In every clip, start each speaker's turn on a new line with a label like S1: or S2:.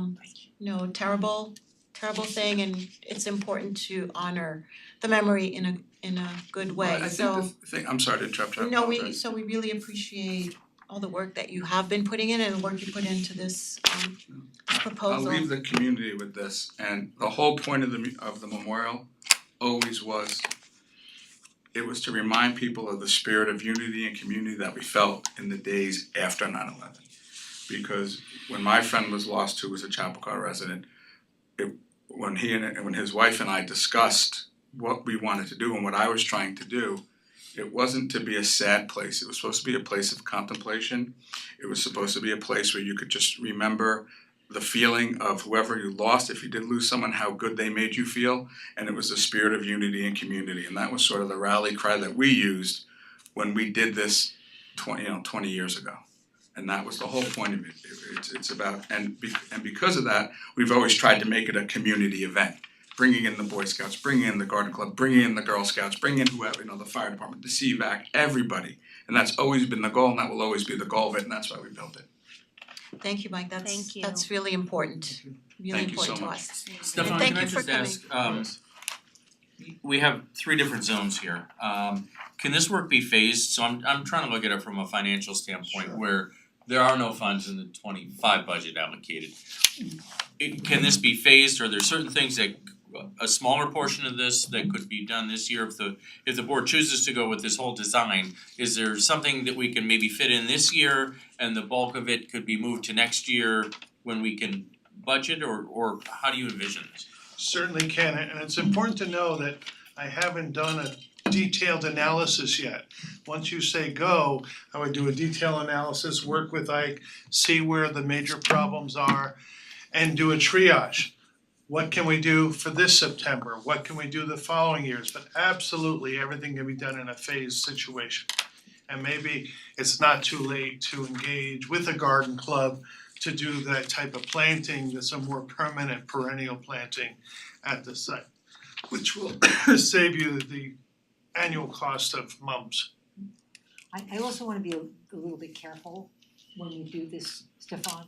S1: um no
S2: Mm-hmm.
S1: terrible terrible thing and it's important to honor the memory in a in a good way, so
S3: I think the thing, I'm sorry to interrupt, I
S1: no, we
S3: apologize.
S1: so we really appreciate all the work that you have been putting in and the work you put into this um this
S3: I'll
S1: proposal.
S3: leave the community with this, and the whole point of the mu- of the memorial always was it was to remind people of the spirit of unity and community that we felt in the days after 9/11. Because when my friend was lost, who was a Chapacua resident, it when he and and when his wife and I discussed what we wanted to do and what I was trying to do, it wasn't to be a sad place. It was supposed to be a place of contemplation. It was supposed to be a place where you could just remember the feeling of whoever you lost, if you did lose someone, how good they made you feel. And it was the spirit of unity and community. And that was sort of the rally cry that we used when we did this twenty, you know, twenty years ago. And that was the whole point of it. It- It's it's about and be, and because of that, we've always tried to make it a community event. Bringing in the Boy Scouts, bringing in the Garden Club, bringing in the Girl Scouts, bringing in whoever, you know, the fire department, the CVAC, everybody. And that's always been the goal and that will always be the goal of it and that's why we built it.
S1: Thank you, Mike, that's
S2: Thank you.
S1: that's really important, really
S3: Thank you so
S1: important to
S3: much.
S1: us.
S4: Stefan,
S1: thank
S4: can I
S1: you for
S4: just ask, um, we have three different zones here. Um, can this work be phased? So I'm I'm trying to look at it from a financial standpoint where there are no funds in the twenty five budget allocated. It- can this be phased? Are there certain things that a smaller portion of this that could be done this year if the if the board chooses to go with this whole design? Is there something that we can maybe fit in this year and the bulk of it could be moved to next year when we can budget or or how do you envision this?
S5: Certainly can, and it's important to know that I haven't done a detailed analysis yet. Once you say go, I would do a detailed analysis, work with Ike, see where the major problems are, and do a triage. What can we do for this September? What can we do the following years? But absolutely, everything can be done in a phased situation. And maybe it's not too late to engage with a garden club to do that type of planting, that's a more permanent perennial planting at the site, which will save you the annual cost of mums.
S6: I I also wanna be a a little bit careful when we do this, Stefan,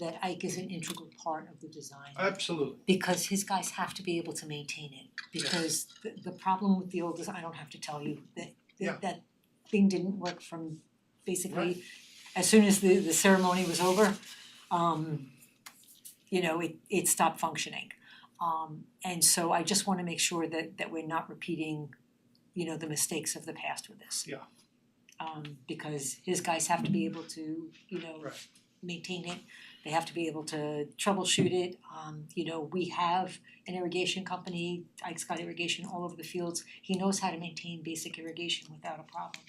S6: that Ike is an integral part of the design.
S5: Absolutely.
S6: Because his guys have to be able to maintain it, because the the problem with the old design, I don't have to tell you, that
S5: Yeah.
S6: that that thing didn't work from basically as soon as the the ceremony was over, um you know, it it stopped functioning. Um and so I just wanna make sure that that we're not repeating, you know, the mistakes of the past with this.
S5: Yeah.
S6: Um because his guys have to be able to, you know,
S5: Right.
S6: maintain it, they have to be able to troubleshoot it. Um you know, we have an irrigation company, Ike's got irrigation all over the fields. He knows how to maintain basic irrigation without a problem.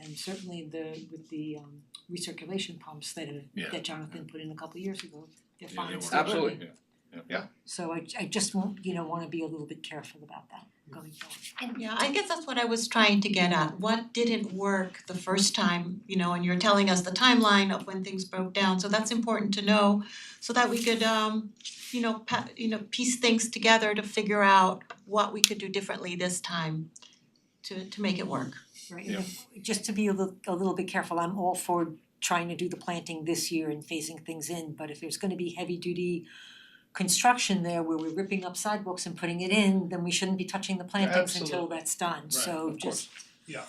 S6: And certainly the with the um recirculation pumps that
S7: Yeah.
S6: have that Jonathan put in a couple years ago, they're
S7: Yeah,
S6: fine,
S7: they
S6: it's
S7: were.
S6: still working.
S7: Yeah.
S6: So I I just want, you know, wanna be a little bit careful about that going forward.
S1: Yeah, I guess that's what I was trying to get at. What didn't work the first time, you know, and you're telling us the timeline of when things broke down. So that's important to know so that we could um, you know, pa- you know, piece things together to figure out what we could do differently this time to to make it work.
S6: Right, and if- just to be a little a little bit careful, I'm all for trying to do the planting this year and phasing things in, but if there's gonna be heavy duty construction there where we're ripping up sidewalks and putting it in, then we shouldn't be touching the plantings until
S5: absolutely.
S6: that's done, so
S7: of course.
S6: just,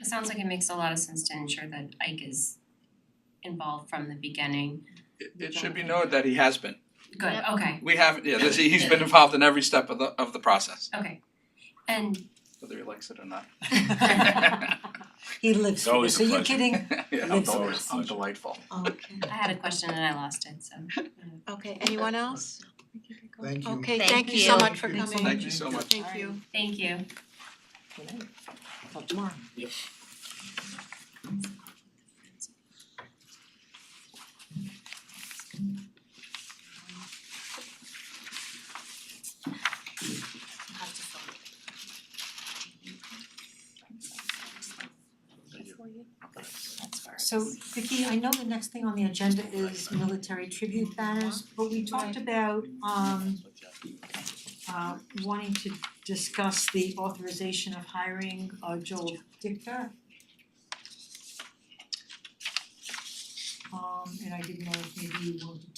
S8: It sounds like it makes a lot of sense to ensure that Ike is involved from the beginning.
S9: It it should be noted that he has been.
S8: Good, okay,
S9: We haven't, yeah, this, he's been involved in every step of the of the process,
S8: okay. And
S9: whether he likes it or not.
S6: he lives for
S7: always
S6: this,
S7: a
S6: are you
S7: pleasure.
S6: kidding?
S9: Yeah,
S6: Lives
S9: I'm
S6: for
S9: always-
S6: this.
S9: I'm delightful.
S1: Okay.
S8: I had a question and I lost it, so.
S1: Okay, anyone else?
S5: Thank
S1: Okay,
S2: Thank
S1: thank you so
S2: you.
S1: much for
S5: Thank
S1: coming.
S5: you.
S9: Thank you so much.
S1: Thank you.
S8: Thank you.
S6: Tonight. Till tomorrow. So Vicky, I know the next thing on the agenda is military tribute banners, but we talked about um uh wanting to discuss the authorization of hiring uh Joel Dicker. Um and I didn't know if maybe you wanted